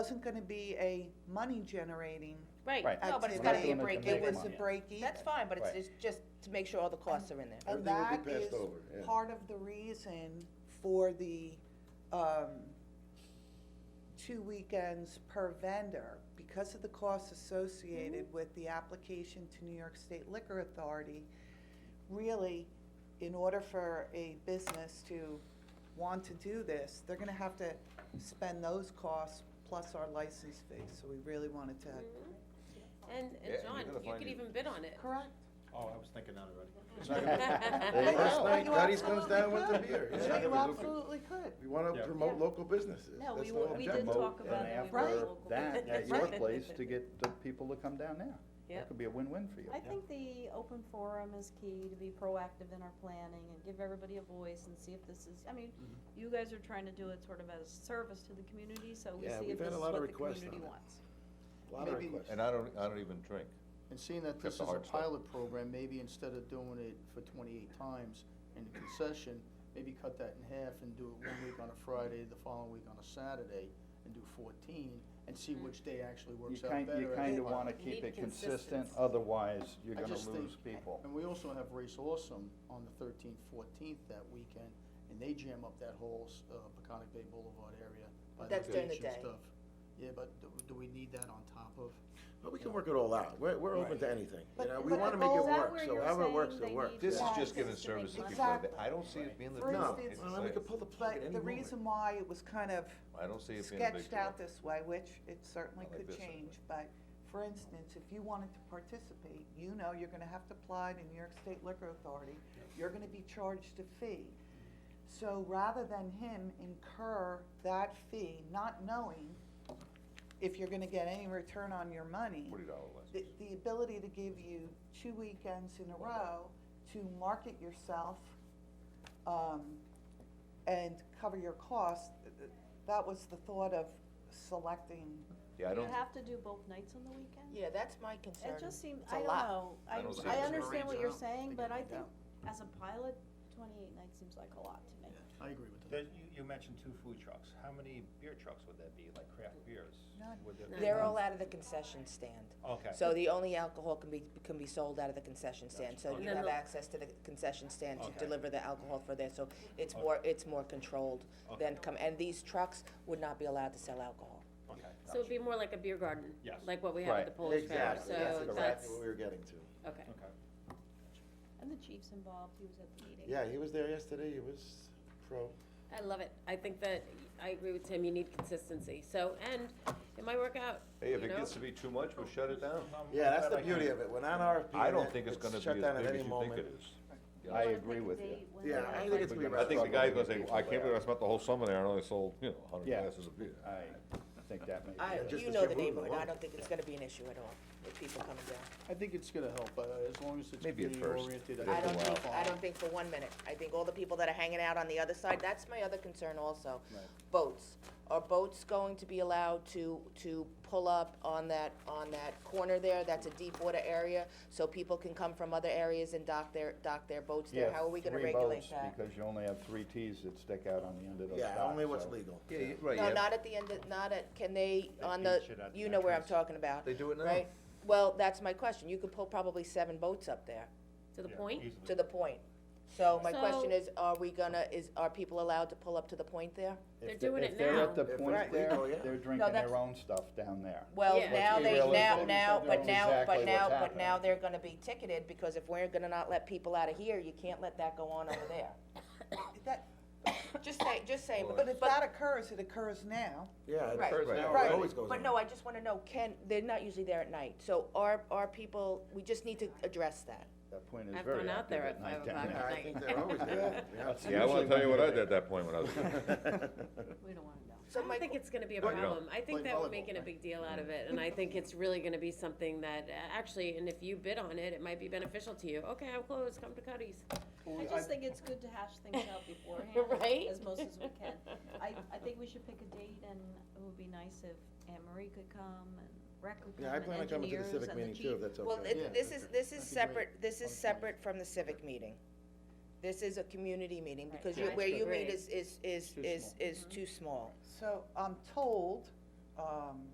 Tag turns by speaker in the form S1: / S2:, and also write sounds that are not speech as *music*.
S1: wasn't gonna be a money generating
S2: Right,
S3: Right.
S2: no, but it's gotta be a break
S1: activity,
S3: break-even.
S1: it
S2: even.
S1: was a
S3: Yeah.
S1: break even.
S2: That's fine, but it's,
S3: Right.
S2: it's just to make sure all the costs are in there.
S1: And
S4: Everything will
S1: that
S4: be
S1: is
S4: passed over, yeah.
S1: part of the reason for the, um, two weekends per vendor, because of the costs
S2: Mm-hmm.
S1: associated with the application to New York State Liquor Authority, really, in order for a business to want to do this, they're gonna have to spend those costs plus our license fee, so we really wanted to.
S5: Mm-hmm.
S2: Mm-hmm.
S5: And, and
S6: Yeah, you're
S5: John,
S6: gonna
S5: you
S6: find
S5: could
S6: it.
S5: even bid on it.
S1: Correct.
S3: Oh, I was thinking that already. *laughs*
S6: It's *laughs* not gonna-
S5: There you
S6: First
S5: go.
S6: night,
S1: You
S6: Cuddy's comes
S1: absolutely
S6: down with the
S1: could.
S6: beer.
S1: You
S6: It's not gonna be-
S1: absolutely could.
S6: We wanna
S3: Yeah.
S6: promote local businesses.
S5: No,
S6: That's
S5: we
S6: the
S5: wa-
S6: whole
S5: we
S6: objective.
S5: did talk about it.
S3: And
S5: we were
S1: Right.
S3: after
S5: local.
S3: that, at your
S1: Right.
S3: place to get the people to come down now. That
S5: Yep.
S3: could be a win-win for you.
S7: I think the open forum is key, to be proactive in our planning and give everybody a voice and see if this is, I mean, you guys are trying to do it sort of as a service to the community, so we
S4: Yeah,
S7: see
S4: we've
S7: if
S4: had
S7: this
S4: a
S7: is
S4: lot
S7: what
S4: of
S7: the
S4: requests
S7: community
S4: on it.
S7: wants.
S4: A lot of
S8: Maybe-
S4: requests.
S6: And I don't, I don't even drink.
S8: And seeing that
S6: Except
S8: this is
S6: the
S8: a
S6: hard stuff.
S8: pilot program, maybe instead of doing it for twenty-eight times in the concession, maybe cut that in half and do it one week on a Friday, the following week on a Saturday, and do fourteen, and see
S7: Mm-hmm.
S8: which day actually
S3: You
S8: works out
S3: kind,
S8: better.
S3: you
S8: at the
S3: kinda
S8: time.
S3: wanna
S5: You
S3: keep
S5: need
S3: it consistent,
S5: consistency.
S3: otherwise you're
S8: I
S3: gonna
S8: just think-
S3: lose people.
S8: And we also have Race Awesome on the thirteenth, fourteenth that weekend, and they jam up that whole, s- uh, Peconic Bay Boulevard area by the
S2: That's during the
S8: beach and
S2: day.
S8: stuff. Yeah, but do, do we need that on top of?
S4: But we can work it all out, we're, we're open to anything, you
S1: But-
S4: know, we
S1: but
S4: wanna
S1: the
S4: make it
S1: goal- Is
S7: that
S4: work,
S7: where
S4: so
S7: you're
S4: however it
S7: saying
S4: works, it
S7: they
S4: works.
S7: need
S6: This is
S1: Yeah.
S6: just giving
S7: Just to make
S6: service to people.
S1: money.
S6: that- I don't see it being the.
S1: For
S6: big deal.
S1: instance-
S4: No, well, we could pull the plug at
S1: But
S4: any
S1: the
S4: moment.
S1: reason why it was kind of
S6: I don't see it being a big
S1: sketched
S6: deal.
S1: out this way, which it certainly
S6: I like
S1: could
S6: this
S1: change, but for instance, if you wanted to participate, you know you're gonna have to apply to New York State Liquor Authority, you're gonna be charged a fee. So rather than him incur that fee, not knowing if you're gonna get any return on your money
S6: Forty dollar
S1: the,
S6: license.
S1: the ability to give you two weekends in a row to market yourself, um, and cover your costs, th- th- that was the thought of selecting,
S6: Yeah, I
S7: You
S6: don't,
S7: have to do both nights on the weekend?
S2: Yeah, that's my concern.
S7: It just seems,
S2: It's a
S7: I don't
S2: lot.
S7: know,
S6: I
S7: I,
S6: don't see
S7: I
S6: it.
S7: understand what you're
S8: Arrange it out.
S7: saying,
S8: Figure
S7: but I
S8: it
S7: think
S8: out.
S7: as a pilot, twenty-eight nights seems like a lot to me.
S8: I agree with that.
S3: You, you mentioned two food trucks. How many beer trucks would that be, like craft beers?
S1: None.
S3: Would there be
S2: They're all
S3: none?
S2: out of the concession stand.
S3: Okay.
S2: So the only alcohol can be, can be sold out of the concession stand, so
S3: Okay.
S2: you have access to the concession stand to
S3: Okay.
S2: deliver the alcohol for there, so it's more, it's more controlled than come, and these trucks would not be allowed to sell alcohol.
S3: Okay,
S5: So it'd be more like a beer garden,
S3: Yes.
S5: like what we have at the
S3: Right.
S5: Polish Fair,
S4: Exactly, that's
S5: so that's,
S4: exactly what we were getting to.
S5: okay.
S3: okay.
S7: And the chief's involved, he was at the meeting.
S4: Yeah, he was there yesterday, he was pro.
S5: I love it. I think that, I agree with Tim, you need consistency, so, and it might work out,
S6: hey,
S5: you
S6: if it
S5: know?
S6: gets to be too much, we'll shut it down.
S4: Yeah, that's the beauty of it, when on RFP.
S6: I don't
S4: that-
S6: think it's gonna
S4: shut
S6: be
S4: down at
S6: as
S4: any
S6: big as you think
S4: moment.
S6: it is.
S7: You
S3: I
S7: wanna
S3: agree
S7: pick a
S3: with you.
S7: date when-
S4: Yeah, I think it's gonna be.
S6: I think the guy's gonna
S3: Struggle
S6: say,
S3: with
S6: "Well, I
S3: people
S6: can't
S3: there."
S6: believe I spent the whole summer there, and only sold, you know, a hundred
S3: Yeah.
S6: glasses of beer.
S3: I think that may be.
S2: I,
S4: Yeah, just
S2: you
S4: to
S2: know
S4: see
S2: the
S4: movement
S2: neighborhood, I
S4: along.
S2: don't think it's gonna be an issue at all, with people coming down.
S8: I think it's gonna help, uh, as long as it's
S6: Maybe at
S8: community
S6: first,
S8: oriented.
S6: but
S2: I
S6: after a
S2: don't
S6: while.
S2: think, I don't think for one minute. I think all the people that are hanging out on the other side, that's my other concern also.
S3: Right.
S2: Boats. Are boats going to be allowed to, to pull up on that, on that corner there? That's a deep water area, so people can come from other areas and dock their, dock their boats
S3: Yeah,
S2: there? How are we gonna
S3: three
S2: regulate
S3: boats,
S2: that?
S3: Because you only have three T's that stick out on the end of those
S4: Yeah,
S3: docks,
S4: only what's
S3: so-
S4: legal.
S6: Yeah, you- right,
S2: No,
S6: yeah,
S2: not at the end, of- not at, can they,
S3: They
S2: on the,
S3: beach it at the
S2: you know where I'm
S3: entrance.
S2: talking about,
S4: They do it now.
S2: right? Well, that's my question. You could pull probably seven boats up there.
S5: To the
S3: Yeah,
S5: point?
S3: easily.
S2: to the point. So my
S5: So-
S2: question is, are we gonna, is, are people allowed to pull up to the point there?
S3: If
S5: They're
S3: they-
S5: doing it
S3: If they're
S5: now.
S3: at the
S4: If
S3: point
S4: it's legal, yeah.
S3: there,
S4: No,
S3: they're drinking
S2: that's-
S3: their own stuff down there.
S2: Well,
S5: Yeah.
S2: now
S3: Let's be
S2: they, now,
S3: realistic.
S2: now, but
S3: That's
S2: now,
S3: exactly
S2: but now,
S3: what's
S2: but now
S3: happening.
S2: they're gonna be ticketed, because if we're gonna not let people out of here, you can't let that go on over there.
S1: that,
S2: *coughs* Just say, just saying,
S1: but
S2: but,
S1: if
S2: but,
S1: that occurs, it occurs now.
S4: Yeah, it
S2: Right.
S4: occurs now,
S1: Right.
S4: it always goes on.
S2: but no, I just wanna know, can, they're not usually there at night, so are, are people, we just need to address that.
S3: That point is
S5: I've
S3: very
S5: gone out
S3: active
S5: there
S3: at
S5: at
S3: night
S5: five
S3: down
S5: o'clock.
S3: there.
S4: I think they're
S5: *laughs*
S4: always *laughs* there, yeah.
S3: That's
S6: yeah, I wanna
S3: usually
S6: tell you
S3: when
S6: what I
S3: they're
S6: did at
S3: there.
S6: that point when I was.
S7: We don't wanna know.
S5: I
S2: So
S5: don't
S2: my,
S5: think it's gonna be a
S6: Well, you know,
S5: problem. I think
S8: play
S5: that we're
S8: volleyball,
S5: making a
S8: right?
S5: big deal out of it, and I think it's really gonna be something that, uh, actually, and if you bid on it, it might be beneficial to you. Okay, I'm closed, come to Cuddy's.
S7: I just think it's good to hash things out
S5: *laughs*
S7: beforehand,
S5: Right?
S7: as most as we can.
S5: *laughs*
S7: I, I think we should pick a date, and it would be nice if Anne Marie could come, and Rec could
S4: Yeah, I
S7: come,
S4: plan on
S7: and
S4: coming to the
S7: engineers, and
S4: civic meeting
S7: the
S4: too,
S7: chief.
S4: if that's okay.
S2: well,
S8: Yeah,
S2: it, this is, this is
S8: that'd be great.
S2: separate, this
S8: On
S2: is
S8: the
S2: separate from the civic meeting. This is a community meeting,
S5: Right.
S2: because
S5: Yeah,
S2: you,
S5: I
S2: where you
S5: agree.
S2: Mm-hmm. meet is, is, is,
S8: Too
S2: is, is too small.
S1: So I'm told, um,